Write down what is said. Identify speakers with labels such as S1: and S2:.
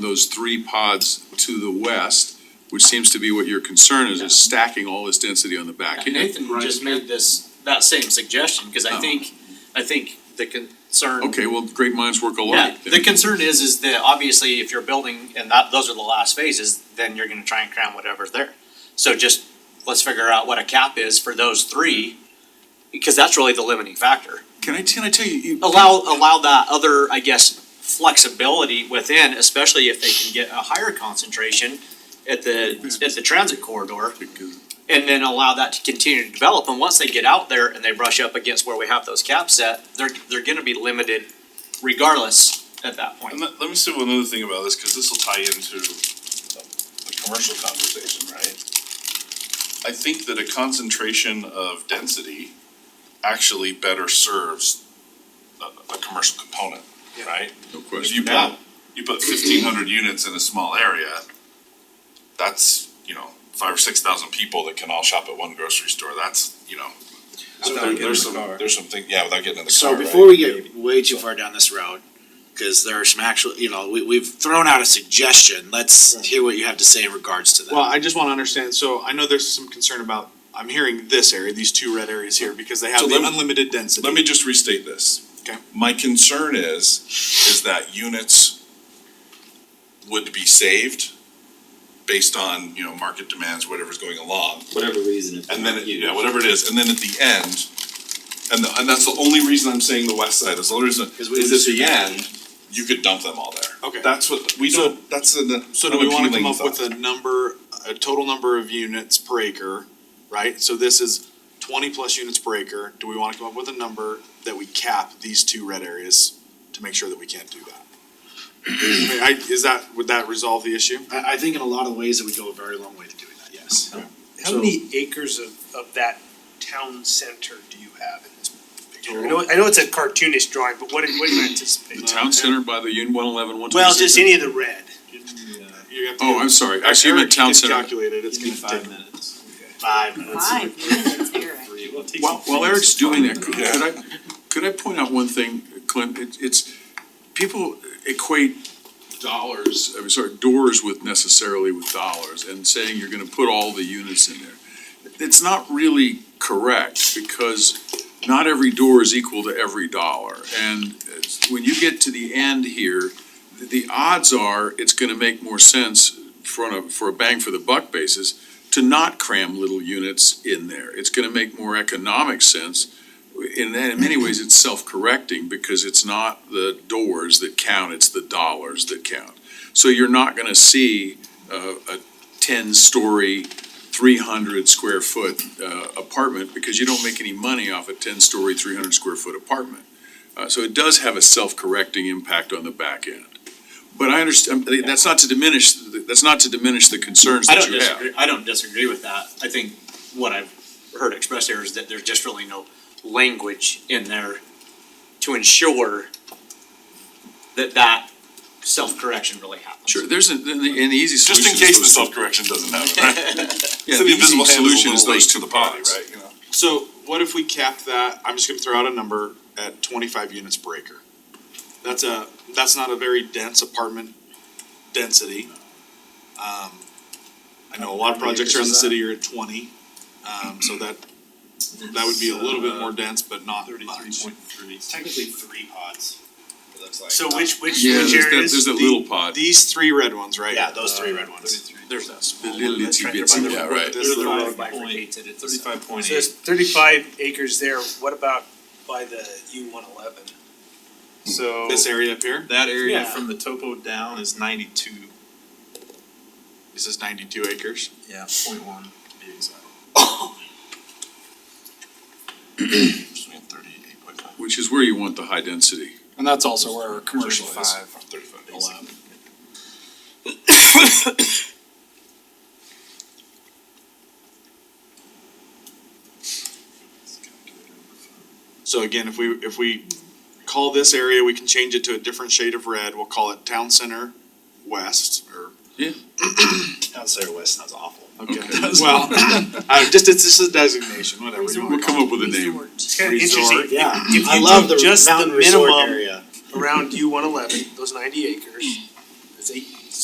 S1: those three pods to the west, which seems to be what your concern is, is stacking all this density on the back
S2: And
S1: end.
S2: Nathan just made this, that same suggestion, cause I
S1: Oh.
S2: think, I think the concern.
S1: Okay, well, great minds work
S2: Yeah,
S1: alike. then.
S2: the concern is, is that obviously if you're building and that, those are the last phases, then you're gonna try and cram whatever's there. So just, let's figure out what a cap is for those three, because that's really the limiting factor.
S1: Can I, can I tell you, you,
S2: Allow, allow that other, I guess, flexibility within, especially if they can get a higher concentration at the, at the transit corridor.
S1: because
S2: and then allow that to continue to develop. And once they get out there and they brush up against where we have those caps set, they're they're gonna be limited regardless at that
S3: And
S2: point.
S3: let, let me say one other thing about this, cause this'll tie into the- the commercial conversation, right? I think that a concentration of density actually better serves a, a commercial component, right?
S1: no
S3: If
S1: question.
S3: you put, you put fifteen hundred units in a small area, that's, you know, five or six thousand people that can all shop at one grocery store, that's, you know.
S4: Without
S3: there-
S4: getting in
S3: There's
S4: the
S3: some,
S4: car.
S3: there's some thing, yeah, without getting in the car,
S4: So
S3: right?
S4: before we get way too far down this road, cause there are some actual, you know, we, we've thrown out a suggestion, let's hear what you have to say in regards to that.
S5: Well, I just wanna understand, so I know there's some concern about, I'm hearing this area, these two red areas here, because they have
S3: So
S5: the
S3: let me-
S5: unlimited density.
S3: Let me just restate this.
S5: Okay.
S3: My concern is, is that units would be saved based on, you know, market demands, whatever's going along.
S6: whatever reason. if
S3: And
S6: they're
S3: then, it-
S6: huge.
S3: yeah, whatever it is, and then at the end, and the, and that's the only reason I'm saying the west side, is the only reason,
S4: Because we
S3: is
S4: would-
S3: at the end, you could dump them all there.
S5: Okay.
S3: That's what, we
S5: So-
S3: don't, that's an,
S5: So do we wanna come
S3: unappealing
S5: up with
S3: thought.
S5: a number, a total number of units per acre, right? So this is twenty plus units per acre, do we wanna come up with a number that we cap these two red areas to make sure that we can't do that? I mean, I, is that, would that resolve the issue?
S4: I, I think in a lot of ways that we go a very long way to doing that, yes.
S7: How
S4: So-
S7: many acres of, of that town center do you have in this picture? I know, I know it's a cartoonish drawing, but what, do- what do you
S1: The
S7: anticipate?
S1: town center by the Union one eleven, one twenty-six.
S7: Well, just any of the red.
S5: You have to-
S1: Oh, I'm sorry, actually, you meant
S5: Eric
S1: town
S5: can
S1: center.
S5: Calculate it, it's
S4: Give me
S5: gonna take.
S4: five minutes.
S7: Five minutes.
S8: Five minutes, Eric.
S1: While, while Eric's doing that, could
S3: Yeah.
S1: could I, could I point out one thing, Clint? It- It's, people equate dollars, I'm sorry, doors with necessarily with dollars and saying you're gonna put all the units in there. It's not really correct because not every door is equal to every dollar. And it's- when you get to the end here, the- the odds are it's gonna make more sense for a, for a bang for the buck basis to not cram little units in there. It's gonna make more economic sense. In that, in many ways, it's self-correcting because it's not the doors that count, it's the dollars that count. So you're not gonna see uh, a ten-story, three hundred square foot uh, apartment because you don't make any money off a ten-story, three hundred square foot apartment. Uh, So it does have a self-correcting impact on the back end. But I understand, that's not to diminish, that's not to diminish the concerns
S2: I
S1: that
S2: don't
S1: you have.
S2: disagree, I don't disagree with that. I think what I've heard expressed here is that there's just really no language in there to ensure that that self-correction really happens.
S1: Sure, there's an, an an easy solution.
S3: Just in case the
S1: is those-
S3: self-correction doesn't happen, right?
S1: yeah, the
S3: So the
S1: easy
S3: invisible hand is a
S1: solution is
S3: little
S1: those
S3: late
S1: two
S3: to the party,
S1: pods.
S3: right, you know?
S5: So what if we cap that, I'm just gonna throw out a number at twenty-five units per acre? That's a, that's not a very dense apartment density. Um, I know a lot of
S4: How many
S5: projects
S4: acres
S5: around the
S4: is
S5: city are at twenty, um, so that, that would be a little bit more dense, but not much.
S4: uh, three. Technically three pods, it looks like.
S7: So which, which,
S1: Yeah, there's
S7: which
S1: that,
S7: areas?
S1: there's that little pod,
S5: These three red ones, right?
S4: Yeah, those three uh, red ones.
S2: There's that
S1: the
S2: small.
S1: little
S2: that's
S1: itsy
S2: right
S1: bitsy,
S2: by the
S1: yeah,
S2: road.
S1: right.
S5: This is the
S7: Thirty-five
S5: red.
S2: Bifurcated
S5: Uh,
S2: at the side.
S7: So there's thirty-five acres there, what about by the U one eleven?
S6: So
S5: This area up here,
S6: that area
S7: Yeah.
S6: from the topo down is ninety-two,
S5: this is ninety-two acres.
S6: yeah, point one to be exact.
S3: Between thirty-eight point five.
S1: which is where you want the high density.
S9: And that's also where our commercial
S3: Thirty-five.
S9: five
S3: Thirty-five.
S9: allowed.
S5: So again, if we, if we call this area, we can change it to a different shade of red, we'll call it Town Center West, or.
S1: Yeah.
S4: Town center west sounds awful.
S5: Okay,
S1: Okay.
S5: well, uh, just, it's just a designation, whatever you
S1: We'll
S5: wanna
S1: come
S5: call it.
S1: up with a name.
S7: It's kind of interesting,
S5: Resort.
S4: Yeah,
S7: if
S4: I
S7: you
S4: love
S7: do
S4: the
S7: just the
S4: mountain resort
S7: minimum-
S4: area.
S7: around U one eleven, those ninety acres, it's eight,